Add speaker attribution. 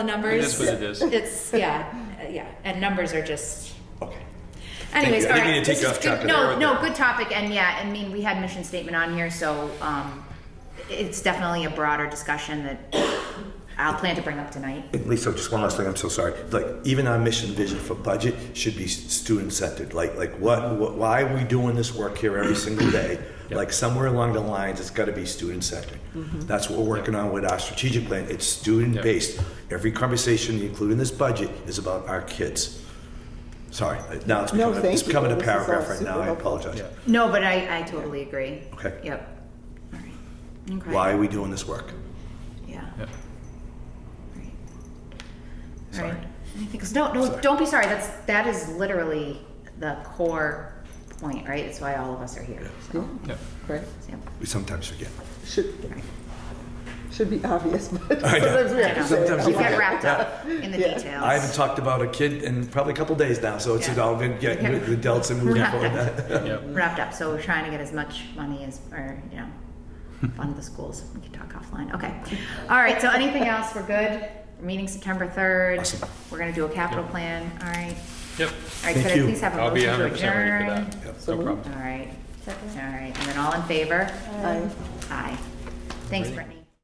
Speaker 1: numbers.
Speaker 2: It is what it is.
Speaker 1: It's, yeah, uh, yeah, and numbers are just,
Speaker 3: Okay.
Speaker 1: anyways,
Speaker 3: you.
Speaker 1: all
Speaker 3: I
Speaker 1: right.
Speaker 3: think you need to take
Speaker 1: this
Speaker 3: off
Speaker 1: is
Speaker 3: chapter
Speaker 1: good.
Speaker 3: there
Speaker 1: No,
Speaker 3: with
Speaker 1: no,
Speaker 3: that.
Speaker 1: good topic, and yeah, I mean, we had mission statement on here, so, um, it's definitely a broader discussion that I'll plan to bring up tonight.
Speaker 3: And Lisa, just one last thing. I'm so sorry. Like even our mission vision for budget should be student centered. Like like what, what why are we doing this work here every single day? Like somewhere along the lines, it's got to be student centered. That's what we're working on with our strategic plan. It's student based. Every conversation, including this budget, is about our kids. Sorry, uh, now it's
Speaker 4: No,
Speaker 3: becoming,
Speaker 4: thank
Speaker 3: it's
Speaker 4: you.
Speaker 3: becoming a
Speaker 4: This is all
Speaker 3: paragraph right now.
Speaker 4: super
Speaker 3: I
Speaker 4: helpful.
Speaker 3: apologize.
Speaker 2: Yeah.
Speaker 1: No, but I, I totally agree.
Speaker 3: Okay.
Speaker 1: Yep. All right. Okay.
Speaker 3: Why are we doing this work?
Speaker 1: Yeah.
Speaker 2: Yeah.
Speaker 1: Right.
Speaker 3: Sorry.
Speaker 1: Right. Anything, 'cause no, no,
Speaker 3: Sorry.
Speaker 1: don't be sorry. That's that is literally the core point, right? It's why all of us are here. So,
Speaker 2: Yeah.
Speaker 4: Right,
Speaker 1: so,
Speaker 3: We sometimes forget.
Speaker 4: should,
Speaker 1: right.
Speaker 4: should be obvious, but
Speaker 3: I know.
Speaker 4: sometimes we have to say
Speaker 3: Sometimes
Speaker 4: it.
Speaker 1: You get wrapped up in the
Speaker 4: Yeah.
Speaker 1: details.
Speaker 3: I haven't talked about a kid in probably a couple days now, so it's
Speaker 1: Yeah.
Speaker 3: all been getting
Speaker 1: Okay.
Speaker 3: with the adults and moving forward.
Speaker 2: Yeah.
Speaker 1: wrapped up. So we're trying to get as much money as, or you know, fund the schools. We can talk offline. Okay. All right. So anything else? We're good. We're meeting September third.
Speaker 3: Awesome.
Speaker 1: We're gonna do a capital plan. All right.
Speaker 2: Yep.
Speaker 1: All right.
Speaker 3: Thank
Speaker 1: could
Speaker 3: you.
Speaker 1: I please have a
Speaker 2: I'll be
Speaker 1: motion to
Speaker 2: 100%
Speaker 1: adjourn?
Speaker 2: ready for that.
Speaker 4: So
Speaker 2: No problem.
Speaker 4: moved.
Speaker 1: All right. All right. And then all in favor?
Speaker 4: Aye.
Speaker 1: Aye. Thanks, Brittany.